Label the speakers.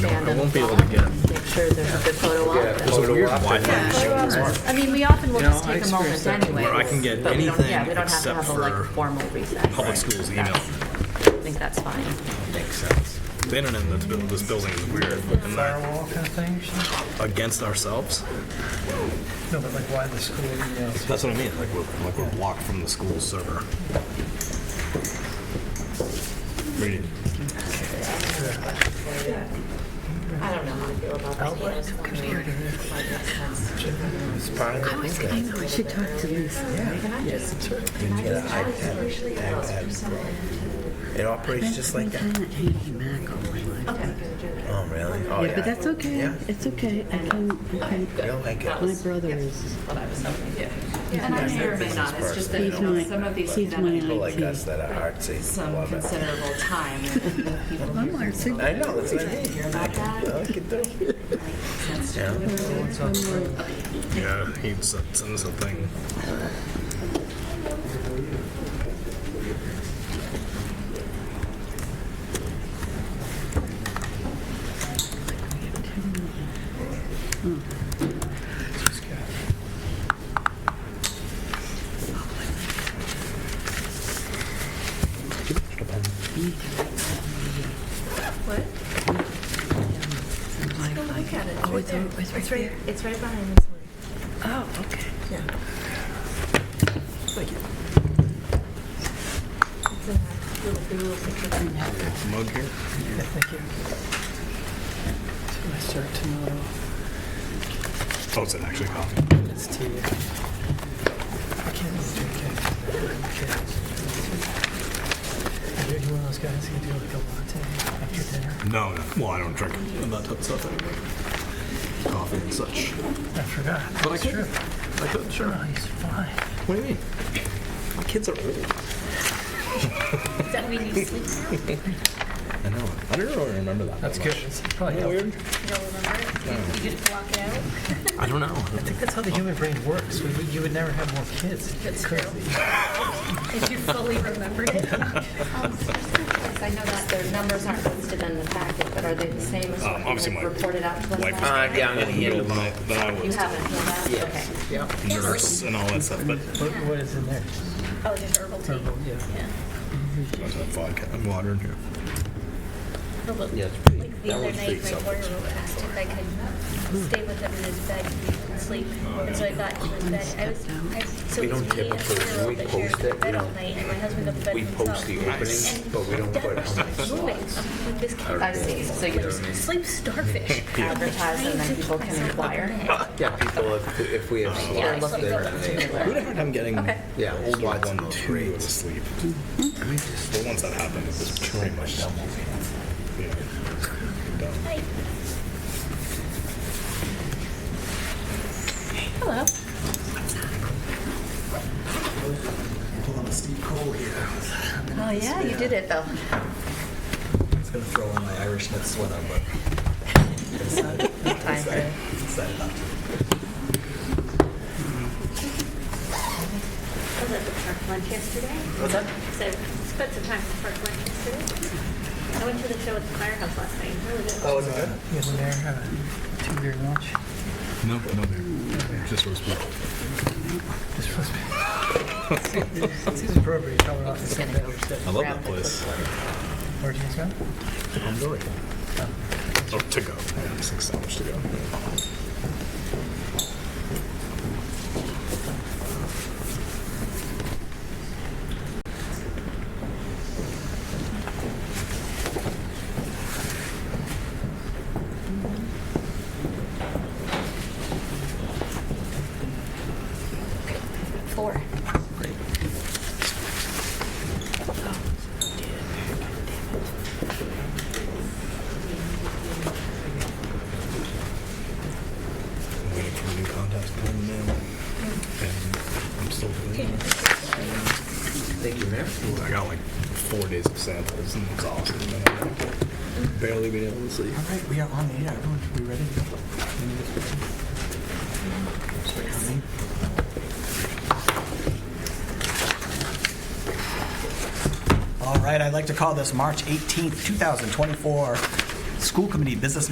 Speaker 1: sand
Speaker 2: I
Speaker 1: on
Speaker 2: won't be
Speaker 1: the
Speaker 2: able
Speaker 1: wall.
Speaker 2: to get 'em.
Speaker 1: Make sure there's a good photo op.
Speaker 2: There's a weird Wi-Fi issue.
Speaker 1: I mean, we often will
Speaker 2: You know,
Speaker 1: just
Speaker 2: I
Speaker 1: take a moment
Speaker 2: experienced that
Speaker 1: anyway.
Speaker 2: where I can get
Speaker 1: but we don't-
Speaker 2: anything
Speaker 1: Yeah, we don't have to
Speaker 2: except
Speaker 1: have a like
Speaker 2: for
Speaker 1: formal recess.
Speaker 2: Public schools email.
Speaker 1: I think that's fine.
Speaker 2: Makes sense. The internet in this, buil- this building is weird. Am I
Speaker 3: firewall kind of thing or something?
Speaker 2: against ourselves?
Speaker 3: No, but like why the school emails?
Speaker 2: That's what I mean. Like we're like we're blocked from the school server. Reading.
Speaker 1: I don't know how to feel about that.
Speaker 3: It's part of the thing.
Speaker 4: I know, I should talk to Lisa.
Speaker 5: It operates just like that.
Speaker 4: I'm kind of hanging back all my life.
Speaker 5: Oh, really? Oh,
Speaker 4: Yeah, but that's okay.
Speaker 5: Yeah.
Speaker 4: It's okay. I can, I can,
Speaker 5: You'll like it.
Speaker 4: my brother is,
Speaker 1: And I may or may not, it's just that,
Speaker 4: he's my, he's
Speaker 5: People
Speaker 4: my
Speaker 5: like
Speaker 4: IT.
Speaker 5: us that are artsy, love it.
Speaker 1: considerable time. and people
Speaker 4: I'm our sig-
Speaker 5: I know, that's what I mean. Hear about that? I like it though. Yeah.
Speaker 2: Yeah, he sent sent us a thing.
Speaker 4: Oh, it's, it's right there.
Speaker 1: It's right behind this one.
Speaker 4: Oh, okay.
Speaker 1: It's in that little blue picture.
Speaker 2: Mug here.
Speaker 3: Yeah, Thank you. So I start tomorrow.
Speaker 2: Oh, it's an actually coffee.
Speaker 3: It's tea. I can't drink it. Okay. Are you one of those guys who do like a latte after dinner?
Speaker 2: No, no. Well, I don't drink that type of stuff anymore. Coffee and such.
Speaker 3: I forgot.
Speaker 2: But I
Speaker 3: It's
Speaker 2: could.
Speaker 3: true.
Speaker 2: I could. Sure.
Speaker 3: Oh, he's fine.
Speaker 2: What do you mean? My kids are old.
Speaker 1: Does that mean you sleep now?
Speaker 2: I know. I don't really remember that.
Speaker 3: That's
Speaker 2: that
Speaker 3: good.
Speaker 2: much.
Speaker 3: It's probably
Speaker 2: Isn't that weird?
Speaker 3: helped.
Speaker 2: I don't know.
Speaker 3: I think that's how the human brain works. We, would- you would never have more kids. It's crazy.
Speaker 6: If you fully remembered it.
Speaker 1: I know that their numbers aren't listed in the packet, but are they the same as
Speaker 2: Um,
Speaker 1: what
Speaker 2: obviously
Speaker 1: you
Speaker 2: my
Speaker 1: had reported out to us
Speaker 2: wife
Speaker 1: last
Speaker 2: was-
Speaker 1: night?
Speaker 5: Uh, yeah, I'm gonna
Speaker 2: Middle
Speaker 5: handle
Speaker 2: than I, than I
Speaker 1: You
Speaker 2: was.
Speaker 1: haven't done that? Okay.
Speaker 2: Nurse and all that stuff, but
Speaker 3: What, what is in there?
Speaker 6: Oh, there's herbal tea.
Speaker 3: Herbal, yeah.
Speaker 2: There's a vodka and water in here.
Speaker 6: Herbal-
Speaker 5: Yeah, it's pretty-
Speaker 6: Like the
Speaker 5: that
Speaker 6: other
Speaker 5: one's pretty
Speaker 6: night, my
Speaker 5: selfish.
Speaker 6: four-year-old asked if I could stay with him in his bed and sleep. And so I got to his bed. I was, I, so
Speaker 5: We don't
Speaker 6: it was me and a
Speaker 5: typically-
Speaker 6: four-year-old
Speaker 5: we
Speaker 6: that shared
Speaker 5: post
Speaker 6: the
Speaker 5: it, we
Speaker 6: bed all
Speaker 5: don't-
Speaker 6: night, and my husband got the bed
Speaker 5: We
Speaker 6: himself.
Speaker 5: post the openings, but we don't put how much.
Speaker 6: That's moving. I'm like, this kid
Speaker 1: I see, so you just
Speaker 6: sleep starfish.
Speaker 1: advertise and then people can inquire.
Speaker 5: Yeah, people, if, if we have
Speaker 1: They're
Speaker 5: slots,
Speaker 1: looking for a
Speaker 5: then they.
Speaker 1: particular.
Speaker 2: We had a hard time getting
Speaker 5: Yeah,
Speaker 2: the older
Speaker 5: lots
Speaker 2: one
Speaker 5: of those
Speaker 2: to
Speaker 5: grades.
Speaker 2: sleep. The ones that happened, it was pretty much double. Yeah. Dumb.
Speaker 6: Hello.
Speaker 2: Pulling a Steve Cole here.
Speaker 1: Oh, yeah, you did it though.
Speaker 5: I was gonna throw on my Irishness sweater, but.
Speaker 1: Time for it.
Speaker 6: I was at the park lunch yesterday.
Speaker 1: What's up?
Speaker 6: So spent some time at the park lunch yesterday. I went to the show at the firehouse last night. Really good.
Speaker 5: Oh, is it good?
Speaker 3: You in there have a two-year lunch.
Speaker 2: No, no, dude. Just roast beef.
Speaker 3: It's supposed to be. It seems appropriate. Tell her off the same day.
Speaker 2: I love
Speaker 1: Grab
Speaker 2: that
Speaker 1: the
Speaker 2: place.
Speaker 3: Where'd you go?
Speaker 2: I'm going. Oh, to go. Yeah, six hours to go.
Speaker 1: Four.
Speaker 2: Waiting for new contacts to come in the mail. And I'm still doing it.
Speaker 5: Thank you, Mayor.
Speaker 2: I got like four days of samples and it's awesome. And I'm
Speaker 5: Mm-hmm.
Speaker 2: like, barely been able to sleep.
Speaker 3: All right, we are on the air. Everyone should be ready.
Speaker 7: All right, I'd like to call this March 18th, 2024 School Committee Business